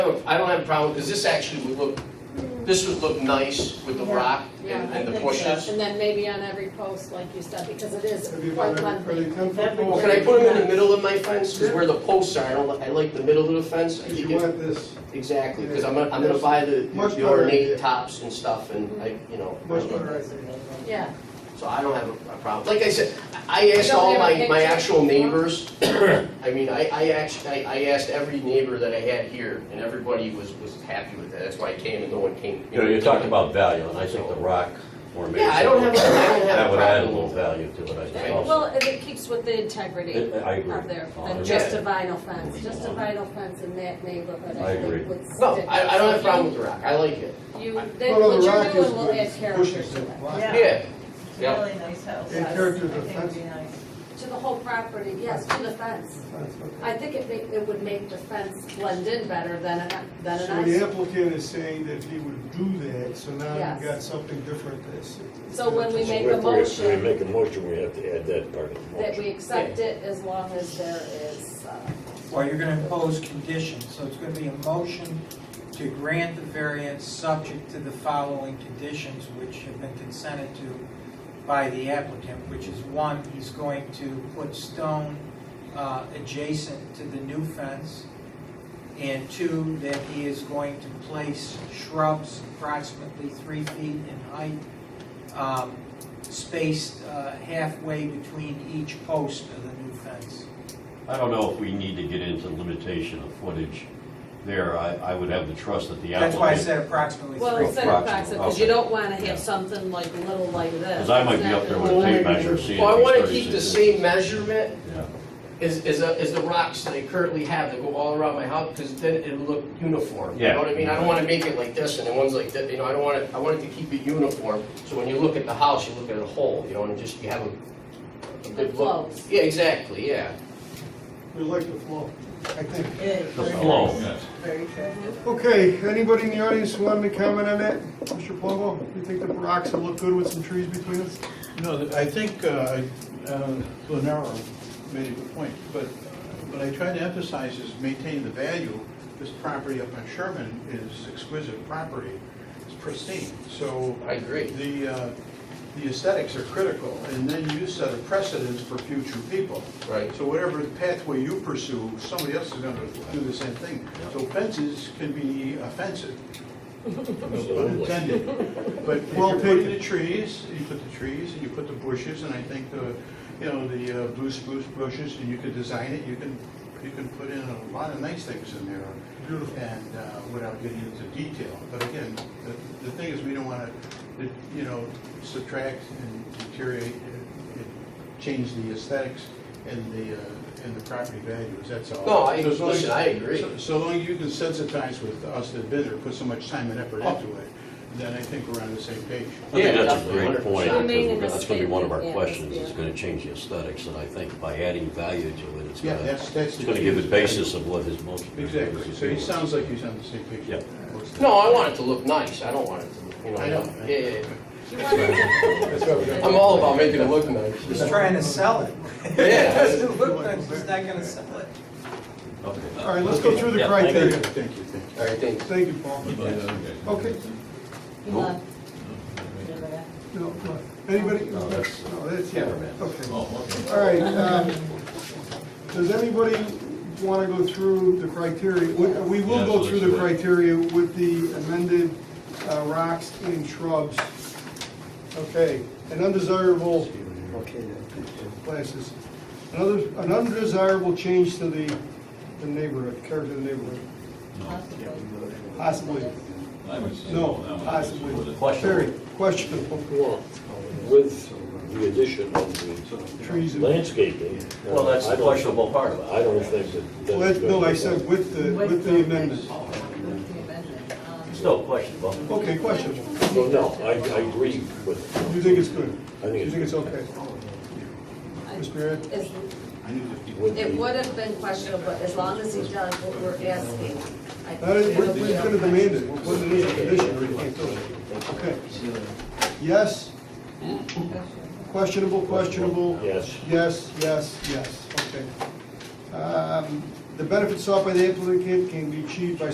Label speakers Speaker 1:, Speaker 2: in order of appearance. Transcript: Speaker 1: don't, I don't have a problem, because this actually would look, this would look nice with the
Speaker 2: Yeah.
Speaker 1: rock
Speaker 2: Yeah,
Speaker 1: and
Speaker 2: I
Speaker 1: and the
Speaker 2: think so.
Speaker 1: bushes.
Speaker 2: And then maybe on every post, like you said, because it is
Speaker 3: Have you
Speaker 2: quite
Speaker 3: got any,
Speaker 2: lengthy.
Speaker 3: pretty ten foot
Speaker 2: Every
Speaker 3: poles?
Speaker 1: Well, can I put them in the middle of my fence? Because where the posts are, I don't, li- I like the middle of the fence. I
Speaker 3: If
Speaker 1: think
Speaker 3: you
Speaker 1: it-
Speaker 3: want this,
Speaker 1: Exactly, because I'm, gonna- I'm gonna buy the
Speaker 3: Much
Speaker 1: the
Speaker 3: better
Speaker 1: ornate
Speaker 3: idea.
Speaker 1: tops and stuff, and I, you know.
Speaker 3: much better idea.
Speaker 2: Yeah,
Speaker 1: So I don't have a a problem. Like I said, I I
Speaker 2: You
Speaker 1: asked
Speaker 2: don't
Speaker 1: all
Speaker 2: have a
Speaker 1: my, my
Speaker 2: picture?
Speaker 1: actual neighbors. I mean, I, I actually, I I asked every neighbor that I had here, and everybody was, was happy with that. That's why I came and no one came.
Speaker 4: You know, you're talking about value, and I think the rock formation.
Speaker 1: Yeah, I don't have a- I don't have a
Speaker 4: That would add a
Speaker 1: problem
Speaker 4: little
Speaker 1: with
Speaker 4: value to it, I think
Speaker 2: well,
Speaker 4: also.
Speaker 2: and it keeps with the integrity
Speaker 4: It- I agree. Uh,
Speaker 2: of there, than
Speaker 4: Yeah.
Speaker 2: just a vinyl fence, just a vinyl fence in that neighborhood,
Speaker 4: I
Speaker 2: I
Speaker 4: agree.
Speaker 2: think would stick.
Speaker 1: No, I, I don't have a problem with the rock. I like it.
Speaker 2: You,
Speaker 1: Well,
Speaker 2: then
Speaker 3: Well,
Speaker 2: what
Speaker 3: the
Speaker 2: you're
Speaker 3: rock is
Speaker 2: doing will
Speaker 3: good.
Speaker 2: add character
Speaker 3: Bushes
Speaker 2: to
Speaker 3: and
Speaker 2: it.
Speaker 3: black.
Speaker 5: Yeah.
Speaker 1: Yeah,
Speaker 5: It's a
Speaker 1: Yep.
Speaker 5: really nice house.
Speaker 3: In
Speaker 5: Yes,
Speaker 3: character
Speaker 5: I
Speaker 3: of
Speaker 5: think it'd be
Speaker 3: fence.
Speaker 5: nice.
Speaker 2: To the whole property, yes, to the fence.
Speaker 3: That's okay.
Speaker 2: I think it ma- it would make the fence blend in better than a, than a
Speaker 3: So
Speaker 2: nice.
Speaker 3: the applicant is saying that he would do that, so now
Speaker 2: Yes.
Speaker 3: you've got something different that's.
Speaker 2: So when we make
Speaker 6: If
Speaker 2: a
Speaker 6: we- If we
Speaker 2: motion,
Speaker 6: make a motion, we have to add that part of the
Speaker 2: that we
Speaker 6: motion.
Speaker 2: accept it as long as there is, uh,
Speaker 7: Well, you're gonna impose conditions, so it's gonna be a motion to grant the variance subject to the following conditions, which have been consented to by the applicant, which is one, he's going to put stone uh, adjacent to the new fence, and two, that he is going to place shrubs approximately three feet in height, um, spaced uh, halfway between each post of the new fence.
Speaker 4: I don't know if we need to get into limitation of footage there. I, I would have the trust that the applicant.
Speaker 7: That's why I said approximately
Speaker 2: well,
Speaker 7: three.
Speaker 2: instead of box because you don't wanna
Speaker 4: Yeah.
Speaker 2: have something like a little like this.
Speaker 4: Because I might be up there with a tape measure, seeing.
Speaker 1: well, I
Speaker 4: if
Speaker 1: wanna
Speaker 4: it's
Speaker 1: keep the
Speaker 4: 36.
Speaker 1: same measurement
Speaker 4: Yeah.
Speaker 1: as, as, uh, as the rocks that I currently have that go all around my house, because then it'll look uniform. You
Speaker 4: Yeah.
Speaker 1: know what I mean? I don't wanna make it like this and then one's like that, you know, I don't want it, I want it to keep it uniform. So when you look at the house, you look at it whole, you know, and just, you have a, a good look.
Speaker 2: flows.
Speaker 1: Yeah, exactly, yeah.
Speaker 3: We like the flow, I think.
Speaker 5: It is
Speaker 4: The
Speaker 5: very
Speaker 4: flow,
Speaker 5: nice.
Speaker 4: yes.
Speaker 5: Very attractive.
Speaker 3: Okay, anybody in the audience who wanted to comment on that? Mr. Plumbo, you think the rocks will look good with some trees between us?
Speaker 8: No, I think uh, uh, Glenara made a good point, but what I try to emphasize is maintain the value. This property up on Sherman is exquisite property, it's pristine, so.
Speaker 1: I agree.
Speaker 8: The, uh, the aesthetics are critical, and then you set a precedence for future people.
Speaker 1: Right.
Speaker 8: So whatever pathway you pursue, somebody else is gonna do the same thing. So fences can be offensive, pun
Speaker 6: Absolutely.
Speaker 8: intended. But if
Speaker 3: Well
Speaker 8: you put in
Speaker 3: taken.
Speaker 8: the trees, you put the trees and you put the bushes, and I think the, you know, the uh, blue spruce bushes, and you could design it, you can, you can put in a lot of nice things in there.
Speaker 3: Beautiful.
Speaker 8: And uh, without getting into detail, but again, the, the thing is, we don't wanna, the- you know, subtract and deteriorate and and change the aesthetics and the, uh, and the property values, that's all.
Speaker 1: No, I-
Speaker 8: So as long as-
Speaker 1: listen, I agree.
Speaker 8: so- So long as you can sensitize with us that bidder, put so much time and effort
Speaker 4: Oh.
Speaker 8: into it, then I think we're on the same
Speaker 4: I
Speaker 8: page.
Speaker 4: think
Speaker 1: Yeah,
Speaker 4: that's a
Speaker 1: definitely,
Speaker 4: great point,
Speaker 1: 100%.
Speaker 4: because we're gonna- that's gonna be one of our
Speaker 2: Yeah,
Speaker 4: questions,
Speaker 2: yeah.
Speaker 4: it's gonna change the aesthetics, and I think by adding value to it, it's
Speaker 8: Yeah,
Speaker 4: gonna,
Speaker 8: that's, that's.
Speaker 4: it's gonna give a basis of what his motion.
Speaker 8: Exactly, so he sounds like he's on the same page.
Speaker 4: Yeah.
Speaker 1: No, I want it to look nice. I don't want it to, look you know.
Speaker 8: I know.
Speaker 1: Yeah, yeah, yeah.
Speaker 2: You wanna-
Speaker 8: That's why we don't-
Speaker 1: I'm all about making it look nice.
Speaker 7: He's trying to sell it.
Speaker 1: Yeah.
Speaker 7: He's not gonna sell it.
Speaker 4: Okay.
Speaker 3: All right, let's go through the
Speaker 4: Yeah, thank
Speaker 3: criteria.
Speaker 8: Thank you, thank you.
Speaker 1: All right, thanks.
Speaker 3: Thank you, Paul. Okay,
Speaker 2: you love-
Speaker 3: no, no. anybody?
Speaker 4: No, that's-
Speaker 3: No, that's, yeah,
Speaker 4: Cameraman. Oh,
Speaker 3: okay. All right, um, does anybody want to go through the criteria? We we will go through the criteria with the amended uh, rocks and shrubs. Okay, an undesirable, okay, classes. Another, an undesirable change to the, the neighborhood, character of the neighborhood, possibly. No, possibly.
Speaker 4: Questionable.
Speaker 3: Very questionable.
Speaker 6: With the addition of
Speaker 3: Trees
Speaker 6: the
Speaker 3: and-
Speaker 6: landscaping. uh,
Speaker 4: Well, that's
Speaker 6: I
Speaker 4: the
Speaker 6: don't-
Speaker 4: questionable part of it.
Speaker 6: I don't think that.
Speaker 3: Well,
Speaker 6: that's
Speaker 3: that- no, I
Speaker 6: good.
Speaker 3: said with the, with the amendment.
Speaker 5: With the amendment, um,
Speaker 4: Still questionable.
Speaker 3: Okay, questionable.
Speaker 6: No, no, I, I agree with.
Speaker 3: Do you think it's good?
Speaker 6: I think
Speaker 3: Do you
Speaker 6: it's
Speaker 3: think it's okay? Mr. Mayor?
Speaker 2: is-
Speaker 6: with
Speaker 2: It
Speaker 6: the-
Speaker 2: would have been questionable, but as long as he does what we're asking. I
Speaker 3: That is,
Speaker 2: think
Speaker 3: we're
Speaker 2: it'll be
Speaker 3: going to
Speaker 2: okay.
Speaker 3: demand it, it wasn't in the condition, or you can't do it. Okay. Yes? Questionable, questionable?
Speaker 6: Yes.
Speaker 3: Yes, yes, yes, okay. Um, The benefits sought by the applicant can be achieved by